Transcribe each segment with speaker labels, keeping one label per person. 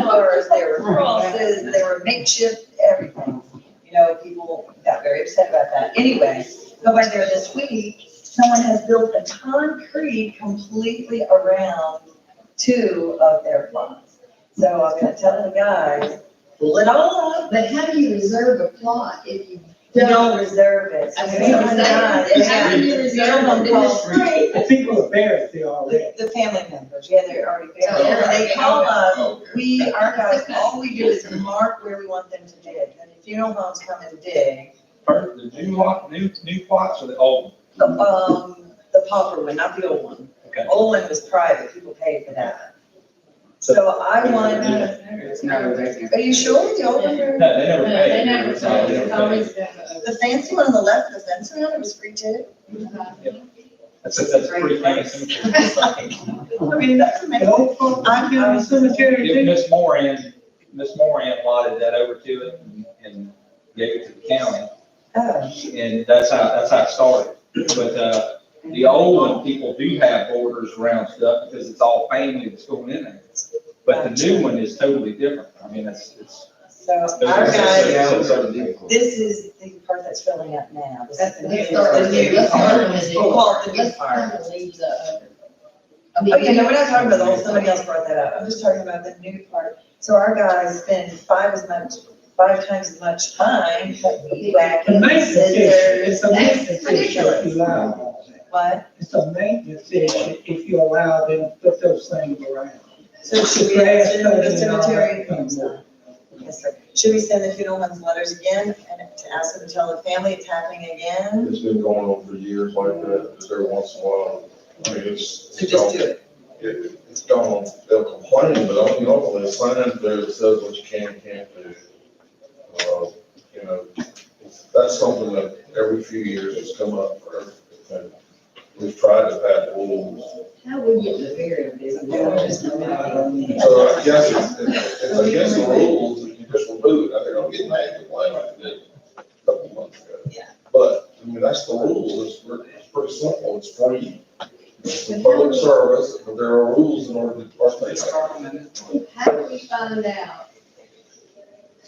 Speaker 1: colors, there were crosses, there were makeshift everything. You know, people got very upset about that. Anyway, go by there this week, someone has built a concrete completely around two of their plots. So I'm gonna tell the guys, pull it all up,
Speaker 2: But how do you reserve a plot if you
Speaker 1: you don't
Speaker 2: don't?
Speaker 1: reserve it. So
Speaker 2: I
Speaker 1: maybe
Speaker 2: mean, I'm
Speaker 1: not,
Speaker 2: saying,
Speaker 1: yeah.
Speaker 2: How do you reserve
Speaker 1: Someone
Speaker 2: them in the
Speaker 1: calls
Speaker 2: street?
Speaker 3: The people of Barrett, they all
Speaker 1: The,
Speaker 3: that.
Speaker 1: the family members, yeah, they're already there.
Speaker 2: Oh,
Speaker 1: They
Speaker 2: okay.
Speaker 1: call us, we, our guys, all we do is mark where we want them to dig. And the funeral homes come and dig.
Speaker 4: Are the new lot, new, new plots or the old?
Speaker 1: The, Um, the pauper one, not the old one.
Speaker 4: Okay.
Speaker 1: Old one was private, people paid for that. So I want,
Speaker 5: It's not a vacant.
Speaker 1: are you sure the old one?
Speaker 4: No, they never
Speaker 2: No, they
Speaker 4: paid.
Speaker 2: never,
Speaker 4: It's all-
Speaker 2: it's
Speaker 4: they never paid.
Speaker 2: always been. a-
Speaker 1: The fancy one on the left, the fence around it was free too.
Speaker 2: uh,
Speaker 4: That's, a- that's a pretty tiny cemetery.
Speaker 1: It's like, I mean, that's
Speaker 3: The
Speaker 1: amazing.
Speaker 3: old folk, I feel in the cemetery
Speaker 4: If
Speaker 3: too.
Speaker 4: Miss Moran, Miss Moran lotted that over to it and gave it to the county,
Speaker 1: Oh,
Speaker 4: and that's how, that's how it started. But, uh, the old one, people do have borders around stuff because it's all family that's going in there. But the new one is totally different. I mean, it's, it's.
Speaker 1: so our guys,
Speaker 4: it's- it's-
Speaker 1: this is the part that's filling up now. This is
Speaker 2: That's
Speaker 1: the
Speaker 2: the
Speaker 1: new-
Speaker 2: new start, the new, let's start with the new
Speaker 1: We'll call it the new
Speaker 2: Let's
Speaker 1: part.
Speaker 2: kind of leave the other. I mean,
Speaker 1: Okay, no, we're not talking about the whole, somebody else brought that up, I'm just talking about the new part. So our guys spend five as much, five times as much time
Speaker 3: The
Speaker 1: whacking
Speaker 3: maintenance issue,
Speaker 1: scissors.
Speaker 3: it's a maintenance issue if you
Speaker 2: ridiculous.
Speaker 3: allow all that.
Speaker 1: What?
Speaker 3: It's a maintenance issue if you allow them to put those things around.
Speaker 1: So should we
Speaker 3: Grass
Speaker 1: send the
Speaker 3: cutting and all
Speaker 1: cemetery?
Speaker 3: that comes up.
Speaker 1: Yes, sir. Should we send the funeral homes letters again and to ask them to tell the family it's happening again?
Speaker 6: It's been going on for years like that, just every once in a while. I mean, it's.
Speaker 1: So just do it.
Speaker 6: It, it's gone, they'll complain, but I don't know, there's signs there that says what you can and can't do. Uh, You know, that's something that every few years has come up for everything. We've tried to pass rules.
Speaker 2: How would you get the burial business?
Speaker 6: So I guess it's, it's it's against the rules, if you just remove it, I think I'll get mad at the way I did a couple months ago.
Speaker 1: Yeah.
Speaker 6: But, I mean, that's the rule, it's, pre- it's pretty simple, it's free. It's a public service, but there are rules in order to participate.
Speaker 2: How do we find out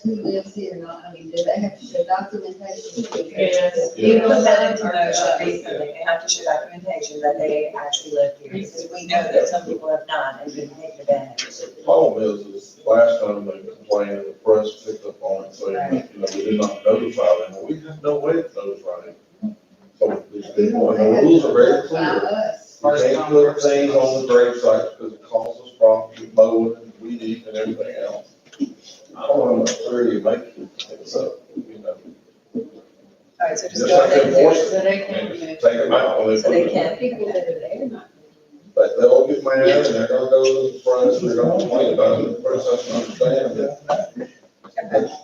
Speaker 2: who lives here or not? I mean, do they have to show documentation?
Speaker 1: Yes.
Speaker 2: You know,
Speaker 1: Put that
Speaker 2: that
Speaker 1: into
Speaker 2: uh,
Speaker 1: motion recently, they have to show documentation that they actually live here, because we know that some people have not and been taken advantage.
Speaker 6: The Problem is, is last time they complained, the press picked up on it, saying, you know, we did not notify them, Well, we had no way to notify them. So, these
Speaker 2: uh,
Speaker 6: people, and the rules are very clear.
Speaker 2: us.
Speaker 6: You can't put things on the grave sites because it causes problems with mowing and weed eating and everything else. I don't know what theory you make, it's up, you know.
Speaker 1: All right, so just
Speaker 6: Just
Speaker 1: go
Speaker 6: like
Speaker 1: ahead
Speaker 6: they
Speaker 1: and do it.
Speaker 6: force
Speaker 2: So
Speaker 6: it,
Speaker 2: they
Speaker 6: I
Speaker 2: can
Speaker 6: mean,
Speaker 2: remove.
Speaker 6: just take them out when they
Speaker 1: So
Speaker 6: put
Speaker 1: they
Speaker 6: it.
Speaker 1: can.
Speaker 2: People that are there not.
Speaker 6: But they'll get mad and they're gonna go to the press, they're gonna complain about it, the press doesn't understand that, that that it's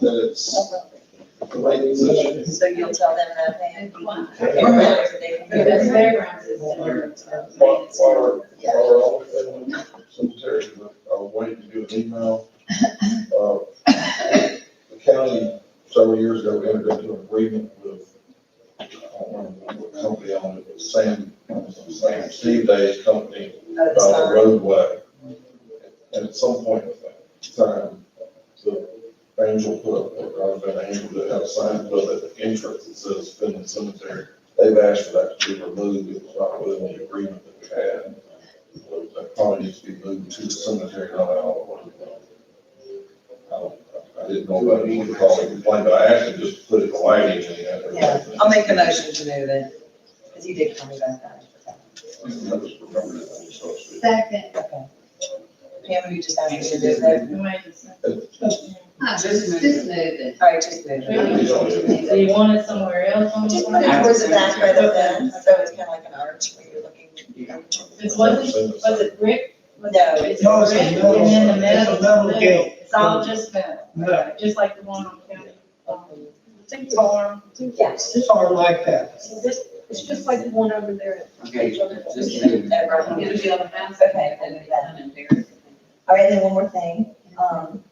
Speaker 6: the way it's.
Speaker 1: So you'll tell them that they have.
Speaker 2: Why?
Speaker 1: Or letters that they can
Speaker 2: Yeah,
Speaker 1: give
Speaker 2: that's
Speaker 1: us.
Speaker 2: fairgrounds is their-
Speaker 6: While, while we're, while we're all, in cemetery, a way to do an email. Uh, The county, several years ago, entered into an agreement with, I don't remember what company on it, but Sam, Sam Steve Day's company,
Speaker 1: Oh, the
Speaker 6: about the
Speaker 1: sign.
Speaker 6: Uh, roadway. And at some point in time, the angel put up, or I've been angel that had a sign put up at the entrance that says Finley Cemetery. They've asked for that to be removed, it was not within the agreement that we had. So That probably needs to be moved to the cemetery, not out of one. I didn't know about it, you called it complaint, but I actually just put it in writing and that.
Speaker 1: Yeah, I'll make a motion to move it, because you did tell me about that.
Speaker 6: I just remembered it, I just thought it.
Speaker 2: Second.
Speaker 1: Okay. Pam, will you just have me to do that?
Speaker 2: Just, just move it.
Speaker 1: All right, just move it.
Speaker 2: Do you want it somewhere else on the?
Speaker 1: Just put it towards the back rather than, so it's kind of like an arch where you're looking.
Speaker 2: It wasn't, was it brick? Was
Speaker 1: No.
Speaker 2: It's
Speaker 3: No, it's a
Speaker 2: brick and
Speaker 3: metal-
Speaker 2: then the
Speaker 3: it's a
Speaker 2: metal's
Speaker 3: metal
Speaker 2: blue.
Speaker 3: gate.
Speaker 2: It's all just metal,
Speaker 3: No,
Speaker 2: just like the one on county, um, farm.
Speaker 1: Yes.
Speaker 3: it's hard like that.
Speaker 7: It's just like the one over there.
Speaker 5: Okay, just
Speaker 1: Okay,
Speaker 5: leave it.
Speaker 1: right.
Speaker 2: It'll be on the house.
Speaker 1: Okay, I'll do that. All right, and then one more thing, um,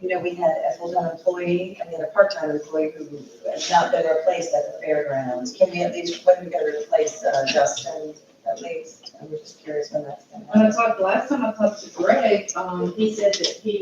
Speaker 1: you know, we had a full-time employee, I mean, a part-time employee who has not been replaced at the fairgrounds. Can we at least, when we gonna replace, uh, Justin, at least? I'm just curious when that's gonna happen.
Speaker 2: When I talked, last time I talked to Greg, um, he said that he